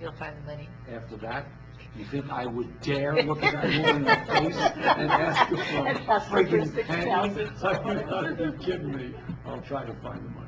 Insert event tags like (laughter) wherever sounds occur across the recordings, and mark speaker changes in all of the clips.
Speaker 1: You'll find the money.
Speaker 2: After that, you think I would dare look at that woman in the face and ask her for a
Speaker 1: And ask her for
Speaker 2: freaking penny? (laughs) Are you
Speaker 1: $6,000.
Speaker 2: kidding me? I'll try to find the money.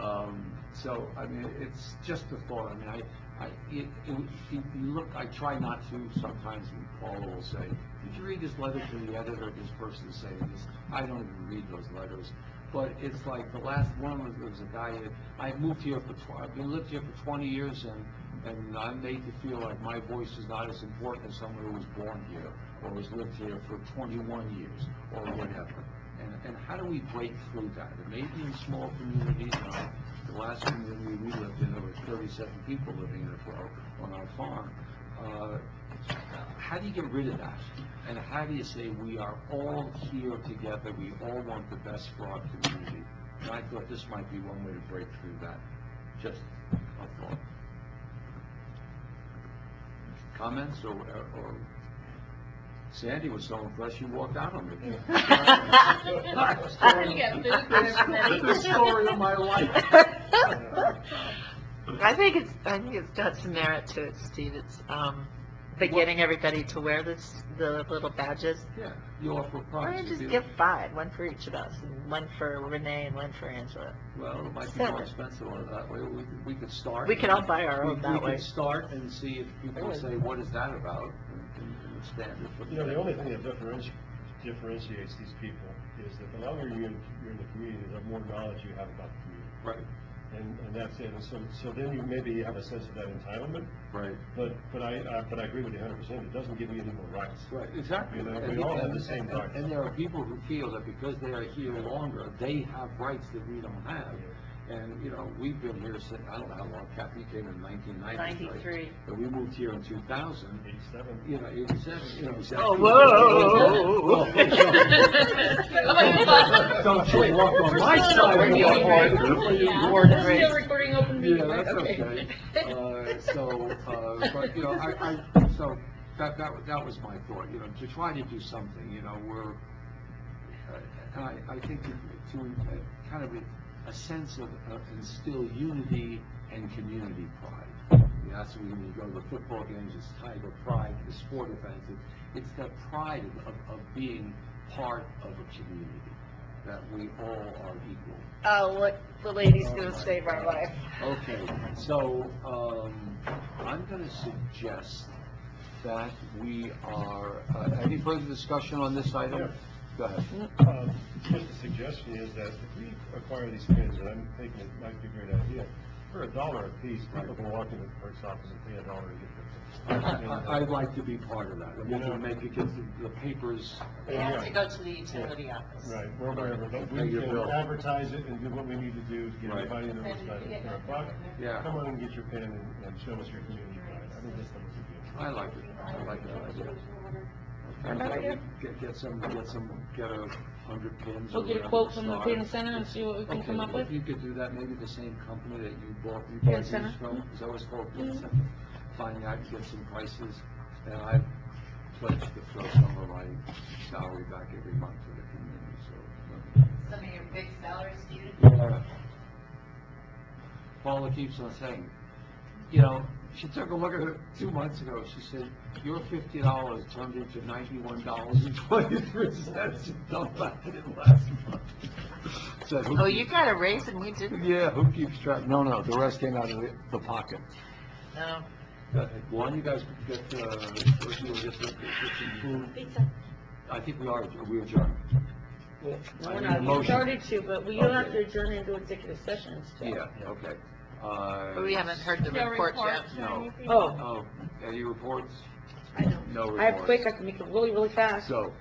Speaker 2: Um, so, I mean, it's just a thought, I mean, I, I, it, it, would- you you look, I try not to, sometimes when Paula will say, did you read this letter to the editor, this person saying this? I don't even read those letters, but it's like, the last one was, there was a guy, that- I moved here for tw- I've been, lived here for twenty years, and, and I'm made to feel like my voice is not as important as someone who was born here, or has lived here for twenty-one years, or whatever. And, and how do we break through that? It may be in small communities, you know, the last community we lived in, there were thirty-seven people living in a row on our farm. Uh, How do you get rid of that? And how do you say, we are all here together, we all want the best for our community? And I thought this might be one way to break through that, just a thought. Comments or, or Sandy was so impressed, she walked out
Speaker 1: (laughs)
Speaker 2: on me. The story of my
Speaker 1: (laughs)
Speaker 2: life.
Speaker 1: I think it's, I think it's got some merit to it, Steve. It's, um, but getting everybody to wear this, the little badges.
Speaker 2: Yeah, you offer
Speaker 1: Why don't
Speaker 2: prize.
Speaker 1: you
Speaker 2: if
Speaker 1: just
Speaker 2: you-
Speaker 1: give five, one for each of us, and one for Renee and one for Angela?
Speaker 2: Well, it might be
Speaker 1: Seven.
Speaker 2: more expensive on it that way, we, could- we could start.
Speaker 1: We could all buy our
Speaker 2: We-
Speaker 1: own that
Speaker 2: We
Speaker 1: way.
Speaker 2: could start and see if people
Speaker 1: Really?
Speaker 2: say, what is that about? and- and- and expand it from
Speaker 3: You know, the
Speaker 2: there.
Speaker 3: only thing that differenti- differentiates these people is that the longer you're in, you're in the community, the more knowledge you have about the community.
Speaker 2: Right,
Speaker 3: And, and that's it, and so, so then you maybe have a sense of that entitlement,
Speaker 2: right,
Speaker 3: but, but I, I, but I agree with you hundred percent, it doesn't give you any more rights.
Speaker 2: right, exactly.
Speaker 3: You know,
Speaker 2: And
Speaker 3: we all
Speaker 2: people-
Speaker 3: have the same
Speaker 2: and- and-
Speaker 3: rights.
Speaker 2: And there are people who feel that because they are here longer, they have rights that we don't have. And, you know, we've been here since, I don't know how long, Kathy came in nineteen ninety-three.
Speaker 1: 93.
Speaker 2: And we moved here in two thousand,
Speaker 3: Eighty-seven.
Speaker 2: you know, it was that, you know, it was that.
Speaker 1: Oh, whoa.
Speaker 2: (laughs) Don't you walk on my
Speaker 1: We're still
Speaker 2: side of the
Speaker 1: recording, right?
Speaker 2: line.
Speaker 1: Yeah.
Speaker 2: Lord,
Speaker 1: We're still
Speaker 4: recording open
Speaker 2: Yeah, that's okay. Uh, so, uh, but, you know, I, I, so, that, that, wa- that was my thought, you know, to try to do something, you know, we're, uh, and I, I think to, to uh, kind of a, a sense of, of instill unity and community pride. You know, That's when you go to the football games, it's Tiger pride, the sport events, it- it's that pride of- of, of being part of a community, that we all are equal.
Speaker 4: Uh,
Speaker 1: Oh, look, the lady's gonna save our life.
Speaker 2: Okay, so, um, I'm gonna suggest that we are, uh, any further discussion on this item?
Speaker 3: Yeah.
Speaker 2: Go ahead.
Speaker 3: (laughs) Um, Just a suggestion is that if we acquire these pins, and I'm thinking it might be a great idea, for a dollar a piece, people can walk into the clerk's office and pay a dollar and
Speaker 2: I,
Speaker 3: get them.
Speaker 2: I, I'd like to be part of that, I want to make it, because the papers,
Speaker 1: We have to go to the utility office.
Speaker 3: Right, or wherever, but
Speaker 2: Pay
Speaker 3: we
Speaker 2: your
Speaker 3: can
Speaker 2: bill.
Speaker 3: advertise it and do what we need to do to get
Speaker 2: Right.
Speaker 3: everybody in the room by four o'clock.
Speaker 2: Yeah.
Speaker 3: Come on and get your pen and, and show us your community pride. I think that's the most important.
Speaker 2: I like it, I like that idea. And
Speaker 1: Another idea?
Speaker 2: Get, get some, get some, get a hundred pins or
Speaker 4: We'll get
Speaker 2: whatever
Speaker 4: a quote
Speaker 2: to
Speaker 4: from the
Speaker 2: start.
Speaker 4: Freedom Center and see what we can
Speaker 2: Okay,
Speaker 4: come up
Speaker 2: well,
Speaker 4: with.
Speaker 2: if you could do that, maybe the same company that you bought, you
Speaker 4: Pin
Speaker 2: bought these
Speaker 4: Center? Mm-hmm.
Speaker 2: from, is that what it's called, Pin Center? Find out, get some prices, and I pledge to throw some of my salary back every month to the community,
Speaker 5: Some of your big salaries, Steve?
Speaker 2: so. Yeah. Uh, Paula keeps on saying, you know, she took a look at it two months ago, she said, your fifty dollars turned into ninety-one dollars and twenty-three cents, you dumped back in last month. Said, "Who
Speaker 1: Oh,
Speaker 2: keeps
Speaker 1: you got a raise and we didn't?
Speaker 2: yeah, who keeps track? No, no, the rest came out of the- the pocket.
Speaker 1: No.
Speaker 2: One, you guys could get, uh, if you were just, get some food.
Speaker 1: Pizza.
Speaker 2: I think we are, we adjourned. I need a
Speaker 4: We
Speaker 2: motion.
Speaker 4: started to, but we don't have to
Speaker 2: Okay.
Speaker 4: adjourn into executive sessions.
Speaker 2: Yeah, okay. Uh,
Speaker 1: We haven't heard the report yet.
Speaker 2: No.
Speaker 4: Oh,
Speaker 2: Oh, any reports?
Speaker 4: I don't.
Speaker 2: No
Speaker 4: I have quick, I
Speaker 2: reports.
Speaker 4: can make it really, really fast.
Speaker 2: So,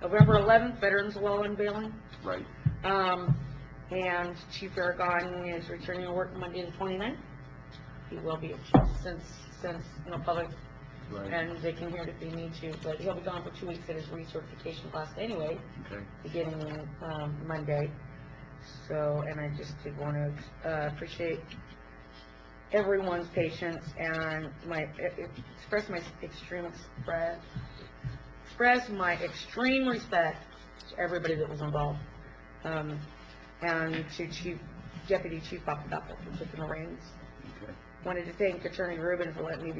Speaker 4: November eleventh, Veterans Law unveiling.
Speaker 2: right,
Speaker 4: Um, and Chief Aragon is returning to work Monday the 29th. He will be, since, since, no public,
Speaker 2: right,
Speaker 4: and they can hear it if they need to, but he'll be gone for two weeks at his recertification class anyway,
Speaker 2: okay.
Speaker 4: beginning, um, Monday. So, and I just did want to, uh, appreciate everyone's patience and my, e- e- express my extreme, express, express my extreme respect to everybody that was involved. Um, and to Chief, Deputy Chief Papadopoulos, who took the reins,
Speaker 2: Okay.
Speaker 4: Wanted to thank Attorney Rubin for letting me be